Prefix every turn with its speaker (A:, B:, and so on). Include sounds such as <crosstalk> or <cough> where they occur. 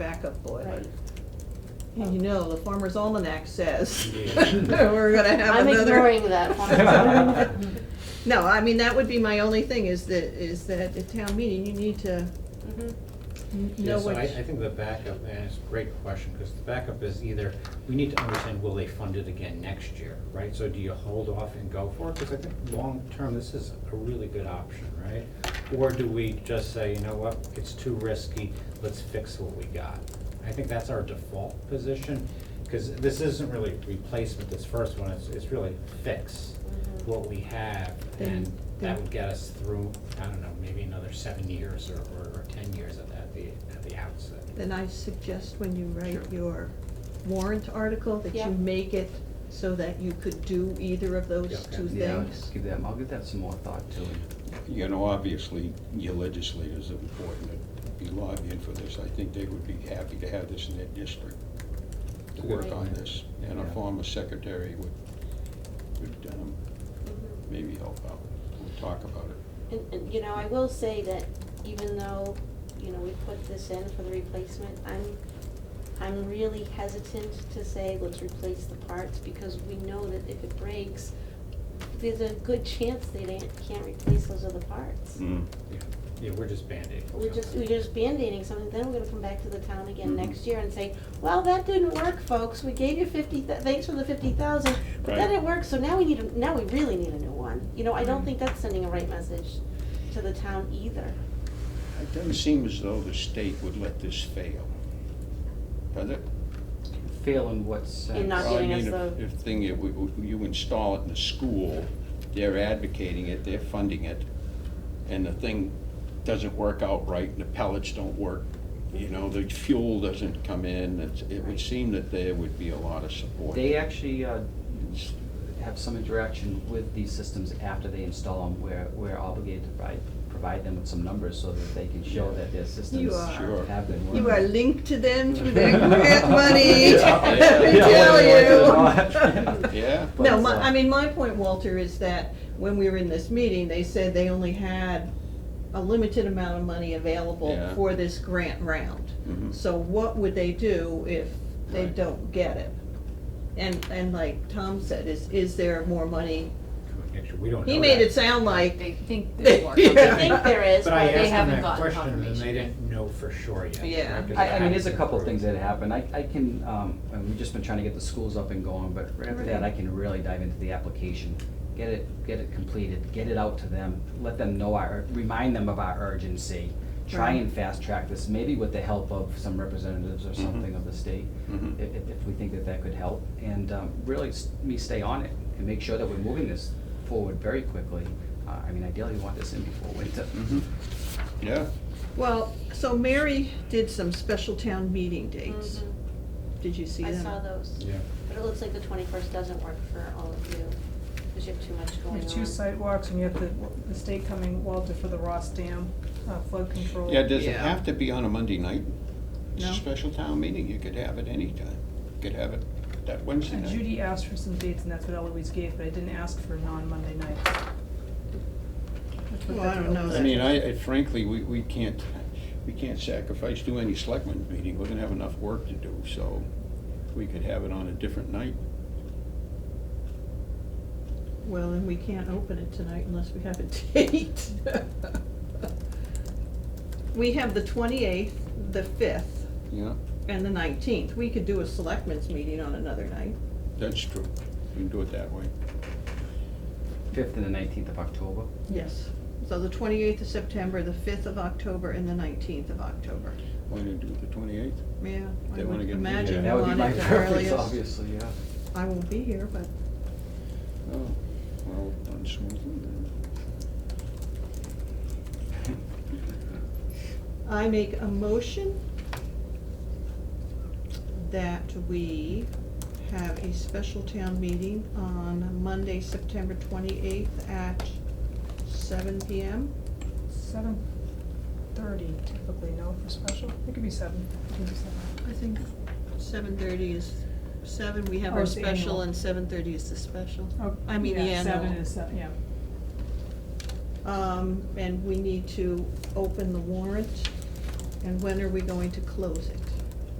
A: backup boiler.
B: Right.
A: And you know, the farmer's almanac says
C: Yeah.
A: <laughs> we're gonna have
B: I'm
A: another. Mm-hmm. <laughs>
B: ignoring that
C: <laughs>
B: one.
C: one.
A: No, I mean, that would be my only thing is that, is that at town meeting, you need to
B: Mhm.
A: n-
C: Yeah,
A: know
C: so I, I
A: which.
C: think the backup, and it's a great question, because the backup is either, we need to understand, will they fund it again next year, right? So do you hold off and go for it? Because I think long-term, this is a really good option, right? Or do we just say, you know what, it's too risky, let's fix what we got? I think that's our default position, because this isn't really replacement, this first one, it's, it's really fix what we have, and
A: Then-
C: that
A: then-
C: would get us through, I don't know, maybe another seven years or, or or ten years at, at the, at the outset.
A: Then I suggest when you write
C: Sure.
A: your warrant article, that
B: Yeah.
A: you make it so that you could do either of
C: Yeah,
A: those
C: okay.
A: two
D: Yeah, I'll just
A: things.
D: give them, I'll give that some more thought to it.
E: You know, obviously, your legislators are important to be lobbying for this. I think they would be happy to have this in their district to work on this. And a
D: Yeah.
E: former secretary would, would um, maybe help out. We'll talk about it.
B: And, and, you know, I will say that even though, you know, we put this in for the replacement, I'm, I'm really hesitant to say, let's replace the parts, because we know that if it breaks, there's a good chance they didn't, can't replace those other parts.
C: Yeah, Yeah, we're just Band-Aiding.
B: We're just, we're just band-aiding something, then we're gonna come back to the town again
E: Mhm.
B: next year and say, well, that didn't work, folks, we gave you fifty, thou- thanks for the fifty thousand, but that
E: Right.
B: didn't work, so now we need, a now we really need a new one. You know, I don't
A: Right.
B: think that's sending a right message to the town either.
E: It doesn't seem as though the state would let this fail, does it?
D: Fail in what sense?
B: not
E: Well, I
B: giving us
E: mean, if-
B: the-
E: If thing, if we- we- you install it in the school, they're advocating it, they're funding it, and the thing doesn't work out right, and the pellets don't work, you know, the fuel doesn't come in, it's- it would seem that there would be a lot of support.
D: They actually uh, have some interaction with these systems after they install them. We're, we're obligated to provide, provide them with some numbers so that they can show that their systems
A: are-
E: Sure.
D: have been working.
A: You are linked to them through
D: <laughs>
C: <laughs>
A: their grant money,
D: Yeah.
A: <laughs> let me
D: Yeah.
A: tell you. <laughs>
D: Yeah.
E: Yeah,
D: But,
A: No, my,
D: uh,
A: I mean, my point, Walter, is that when we were in this meeting, they said they only had a limited amount of money available
E: Yeah.
A: for this grant round.
E: Mhm.
A: So what would they do if they
E: Right.
A: don't get it? And, and like Tom said, is, is there more money?
C: Next year, we don't know
A: He made
C: that.
A: it sound like,
F: They think
A: there's
F: there's
A: more
F: more
A: coming.
B: I think there is,
C: But
B: but
C: I
F: they
C: asked them
F: haven't
C: that
F: gotten
C: question, and they
F: confirmation yet.
C: didn't know for sure yet.
A: Yeah.
C: right, 'cause
D: I,
C: it
D: I mean, there's a
C: hasn't
D: couple of things
C: approved.
D: that happen. I, I can, um, and we've just been trying to get the schools up and going, but right after that, I can really dive into the application. Get it, get it completed, get it out to them, let them know our, remind them of our urgency. Try
A: Right.
D: and fast track this, maybe with the help of some representatives or something of the state,
E: Mhm.
D: if, if, if we think that that could help. And, um, really, s- me stay on it and make sure that we're moving this forward very quickly. Uh, I mean, ideally, we want this in before winter.
E: mhm. yeah,
A: well, so Mary did some special town meeting dates.
B: Mhm.
A: Did you see
B: I
A: them?
B: saw those,
C: Yeah.
B: but it looks like the twenty-first doesn't work for all of you, because you have too much
G: You
B: going
G: have
B: on.
G: two sidewalks and you have the, the state coming, Walter, for the Ross Dam uh, flood control.
E: yeah, does it
A: Yeah.
E: have to be on a Monday night? It's
A: No.
E: a special town meeting, you could have it anytime, you could have it that Wednesday
B: Uh,
G: And
E: night.
G: Judy asked for some dates and that's what Eloise gave, but I didn't ask for non-Monday nights. That's what
A: Well, I
G: that
A: don't know
G: was.
E: I mean, I, I frankly, we, we can't, we can't sacrifice do any selectmen's meeting, we're gonna have enough work to do, so we could have it on a different night.
A: Well, then we can't open it tonight unless we have a <laughs> date. We have the twenty-eighth, the fifth,
E: Yeah,
A: and the nineteenth. We could do a selectmen's meeting on another night.
E: that's true, we can do it that way.
D: Fifth and the nineteenth of October.
A: Yes. So the twenty-eighth of September, the fifth of October, and the nineteenth of October.
E: Why don't you do the twenty-eighth?
A: Yeah, I
E: They
A: would
E: wanna get me
A: imagine
E: there.
A: we
D: That would
A: want
D: be my
A: it the
D: preference,
A: earliest.
D: obviously, yeah.
A: I won't be here, but
E: Oh, well, done smoothly then.
A: I make a motion that we have a special town meeting on Monday, September twenty-eighth at seven PM.
G: Seven thirty typically, no, for special, it could be seven, it could be seven.
A: I think seven thirty is, seven, we have
G: Oh,
A: our
G: it's the
A: special
G: annual.
A: and seven thirty is the special.
G: Oh,
A: I mean, the
G: yeah, Seven
A: annual.
G: is, se- yeah.
A: Um, and we need to open the warrant, and when are we going to close it?